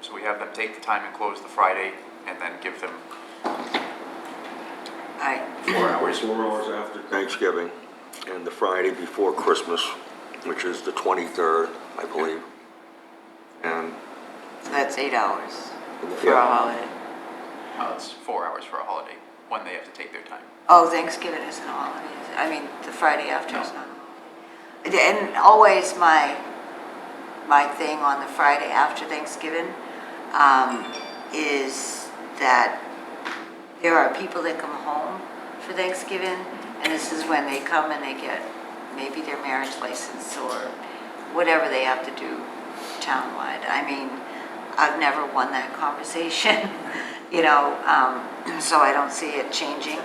So we have them take the time and close the Friday and then give them I, four hours. Four hours after Thanksgiving and the Friday before Christmas, which is the 23rd, I believe. And, so that's eight hours for a Yeah. holiday. Uh, it's four hours for a holiday, when they have to take their time. Oh, Thanksgiving isn't a holiday, is it? I mean, the Friday after is not. a holiday. And always my, my thing on the Friday after Thanksgiving um, is that there are people that come home for Thanksgiving, and this is when they come and they get maybe their marriage license or whatever they have to do townwide. I mean, I've never won that conversation, you know, um, so I don't see it changing.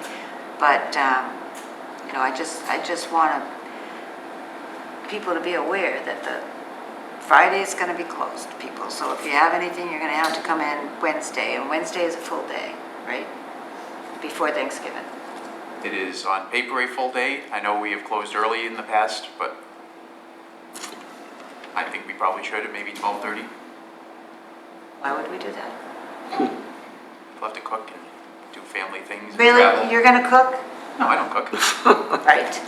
But, um, you know, I just, I just want to- people to be aware that the Friday is going to be closed, people. So if you have anything, you're going to have to come in Wednesday, and Wednesday is a full day, right? Before Thanksgiving. It is on paper a full day. I know we have closed early in the past, but I think we probably should at maybe 12:30. Why would we do that? We'll have to cook and do family things and Really? travel. You're going to cook? No, I don't cook. Right.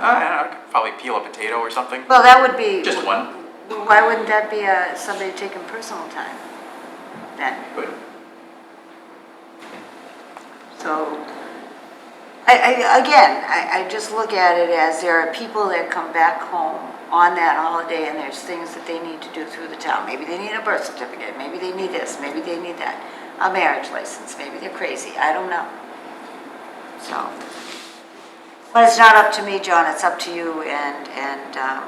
I don't know, I could probably peel a potato or something, Well, that would be. just one, Why wouldn't that be uh, somebody taking personal time then? but So, I, I, again, I, I just look at it as there are people that come back home on that holiday and there's things that they need to do through the town. Maybe they need a birth certificate, maybe they need this, maybe they need that, a marriage license, maybe they're crazy, I don't know. So, but it's not up to me, John, it's up to you and, and, um,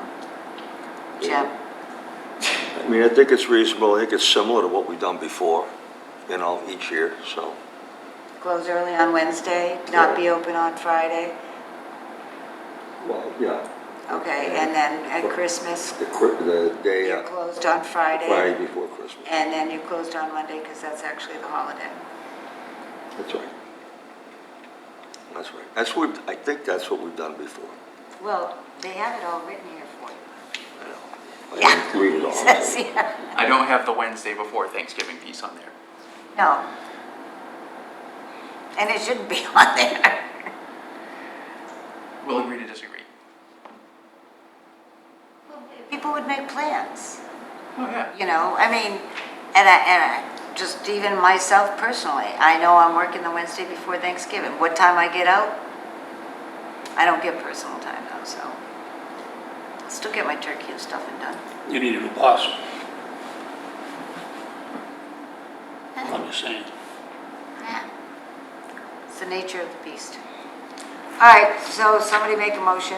Jim. I mean, I think it's reasonable, I think it's similar to what we've done before, you know, each year, so. Close early on Wednesday, not be open on Friday, Well, yeah. okay, and then at Christmas, The, cri- the day, you're uh, closed on Friday before Christmas, And then you closed on Monday because that's actually the holiday. that's right. That's right. That's what, I think that's what we've done before. Well, they have it all written here for you. I know. I didn't read it all, so- Says here. I don't have the Wednesday before Thanksgiving piece on there. No. And it shouldn't be on there. We'll agree to disagree. People would make plans, Oh, yeah. you know, I mean, and I, and I, just even myself personally, I know I'm working the Wednesday before Thanksgiving. What time I get out? I don't get personal time though, so. I'll Still get my turkey and stuffing done. You need a new boss. I'm just saying. It's the nature of the beast. All right, so somebody make a motion.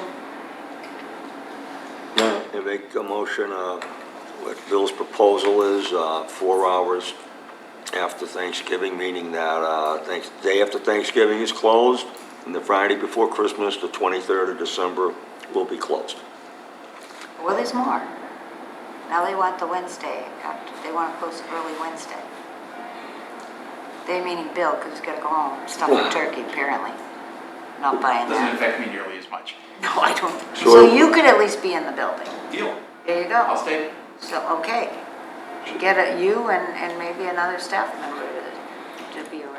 I make a motion, uh, what Bill's proposal is, uh, four hours after Thanksgiving, meaning that, uh, thanks, day after Thanksgiving is closed, and the Friday before Christmas, the 23rd of December, will be closed. Well, there's more. Now they want the Wednesday, after- they want to close early Wednesday. They meaning Bill, because he's got to go home, stuff a turkey, apparently. Not buying Doesn't that. affect me nearly as much. No, I don't. So- So you could at least be in the building. Deal. There you I'll go. stay. So, okay. Get a- you and, and maybe another staff member to, to be around.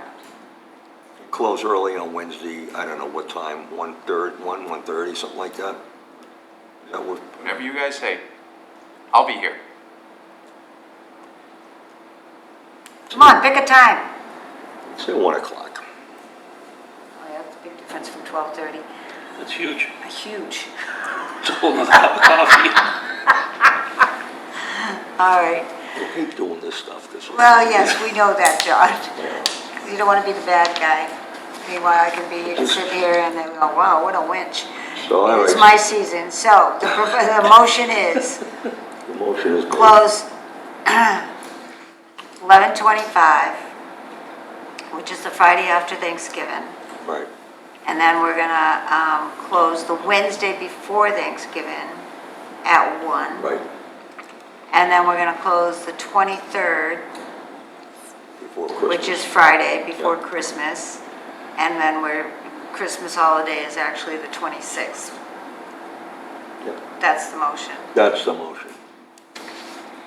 Close early on Wednesday, I don't know what time, one third, one, 1:30, something like that. That would, Whatever you guys say, I'll be here. Come on, pick a time. say 1 o'clock. Oh, yeah, that's a big difference from 12:30. That's huge. Huge. It's a whole nother cup of coffee. All right. I hate doing this stuff, this. Well, yes, we know that, John. You don't want to be the bad guy. Meanwhile, I can be, you can sit here and then go, wow, what a winch. So, all It's right, my season. So the, pro- the motion is the motion is made. close 11:25, which is the Friday after Thanksgiving. Right, And then we're gonna, um, close the Wednesday before Thanksgiving at one. right, And then we're gonna close the 23rd, before which Christmas. is Friday before Yeah. Christmas. And then we're, Christmas holiday is actually the 26th. Yeah, That's the motion. That's the motion.